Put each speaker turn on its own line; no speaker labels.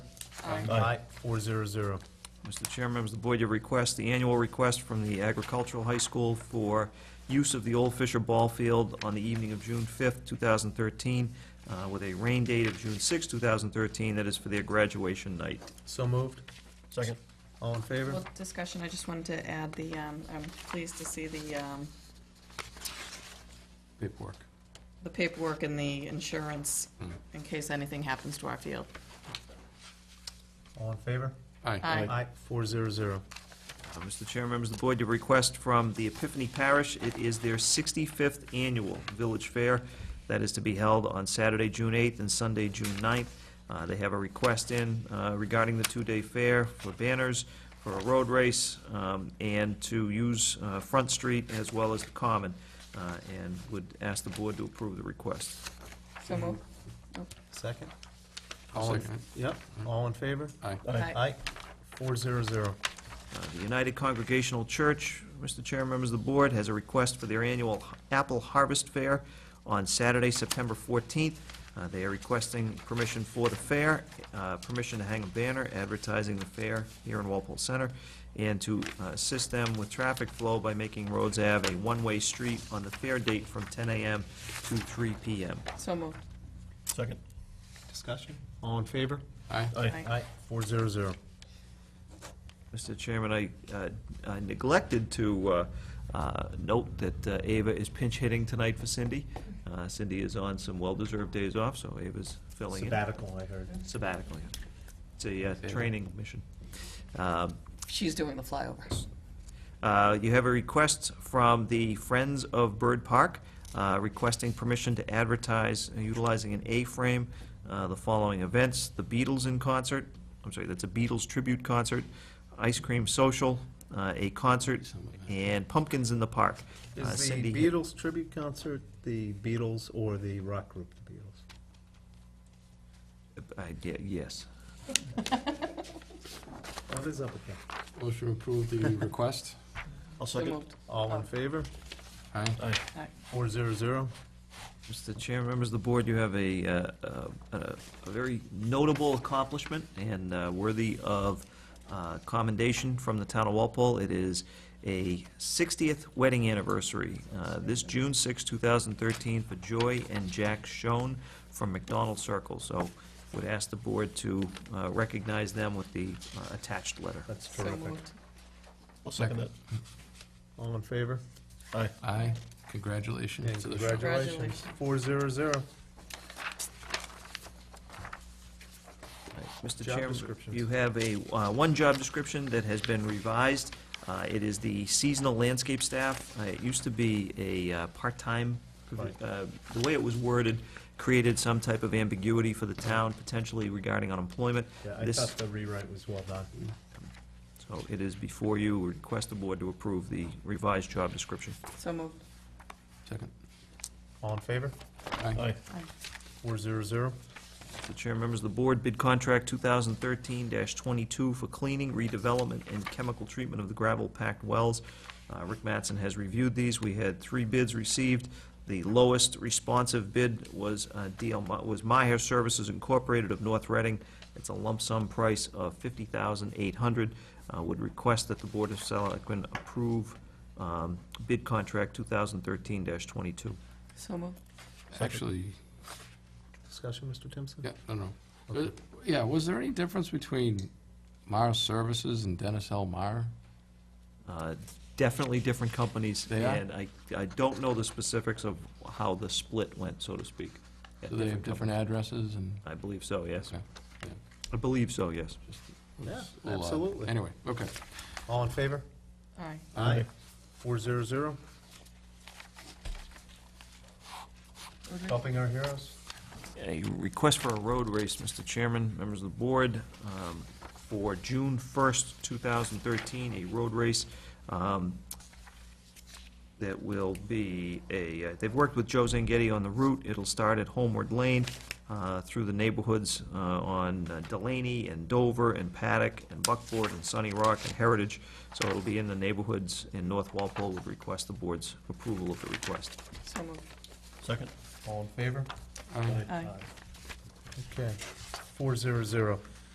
Aye.
Four zero zero.
Mr. Chair, members of the board, your request, the annual request from the Agricultural High School for use of the Old Fisher Ball Field on the evening of June 5th, 2013, uh, with a rain date of June 6th, 2013, that is for their graduation night.
So moved.
Second.
All in favor?
Well, discussion, I just wanted to add the, um, I'm pleased to see the, um,
Paperwork. Hmm.
the paperwork and the insurance in case anything happens to our field.
All in favor?
Aye.
Four zero zero.
Uh, Mr. Chair, members of the board, your request from the Epiphany Parish, it is their 65th annual Village Fair that is to be held on Saturday, June 8th and Sunday, June 9th. Uh, They have a request in uh, regarding the two-day fair for banners, for a road race, um, and to use uh, Front Street as well as the Common, uh, and would ask the board to approve the request.
So moved.
Mm-hmm.
Second?
I'll
All in-
second
Yep, all in favor?
Aye.
Aye.
Four zero zero.
Uh, The United Congregational Church, Mr. Chair, members of the board, has a request for their annual Apple Harvest Fair on Saturday, September 14th. Uh, They are requesting permission for the fair, uh, permission to hang a banner advertising the fair here in Walpole Center, and to uh, assist them with traffic flow by making Rhodes Ave a one-way street on the fair date from 10 a.m. to 3 p.m.
So moved.
Second.
Discussion? All in favor?
Aye.
Aye.
Four zero zero.
Mr. Chairman, I uh, I neglected to uh, uh, note that uh, Ava is pinch hitting tonight for Cindy. Uh, Cindy is on some well-deserved days off, so Ava's filling in.
Sabbatical, I heard.
Uh, Sabbatical, yeah. It's a uh, training mission. Um,
She's doing the flyovers.
uh, You have a request from the Friends of Bird Park uh, requesting permission to advertise utilizing an A-frame uh, the following events: the Beatles in concert, I'm sorry, that's a Beatles tribute concert, ice cream social, uh, a concert, and pumpkins in the park. Uh,
Is the
Cindy-
Beatles tribute concert the Beatles or the rock group, the Beatles?
I- Uh, yeah, Yes.
What is up with that?
Motion to approve the request.
I'll
So moved.
All in favor?
Aye.
Aye.
Four zero zero.
Mr. Chair, members of the board, you have a, uh, uh, a a very notable accomplishment and uh, worthy of uh, commendation from the town of Walpole. It is a 60th wedding anniversary, uh, this June 6, 2013, for Joy and Jack Schoen from McDonald Circle. So would ask the board to uh, recognize them with the uh, attached letter.
That's
So
terrific.
moved.
I'll second that.
Mm-hmm. All in favor?
Aye. Congratulations
And
to the show.
congratulations. Four zero zero.
Mr.
Job
Chairman,
descriptions.
you have a, uh, one job description that has been revised. Uh, It is the seasonal landscape staff. Uh, It used to be a uh, part-time,
Right.
uh, the way it was worded created some type of ambiguity for the town potentially regarding unemployment.
Yeah, I
This-
thought the rewrite was well done.
So it is before you, request the board to approve the revised job description.
So moved.
Second.
All in favor?
Aye.
Aye.
Four zero zero.
Mr. Chair, members of the board, bid contract 2013-22 for cleaning, redevelopment, and chemical treatment of the gravel-packed wells. Uh, Rick Mattson has reviewed these. We had three bids received. The lowest responsive bid was uh, DL, Mi- was Meyer Services Incorporated of North Reading. It's a lump sum price of $50,800. Uh, Would request that the Board of Selectmen approve um, bid contract 2013-22.
So moved.
Actually,
Discussion, Mr. Timpson?
yeah, no, no.
Okay.
Uh, Yeah, was there any difference between Meyer Services and Dennis L. Meyer?
Uh, Definitely different companies.
They are?
And I, I don't know the specifics of how the split went, so to speak. at
Do they have different
companies.
addresses and?
I believe so, yes.
Okay,
I believe so, yes.
was
Yeah,
a little odd.
absolutely.
uh, Anyway, okay.
All in favor?
Aye.
Aye.
Four zero zero. Helping our heroes.
a request for a road race, Mr. Chairman, members of the board, um, for June 1st, 2013, a road race um, that will be a, uh, they've worked with Joe Zangetti on the route. It'll start at Homeward Lane uh, through the neighborhoods uh, on uh, Delaney and Dover and Paddock and Buckboard and Sunny Rock and Heritage. So it'll be in the neighborhoods in North Walpole. Would request the board's approval of the request.
So moved.
Second.
All in favor?
Aye.
Aye.
Okay, four zero zero.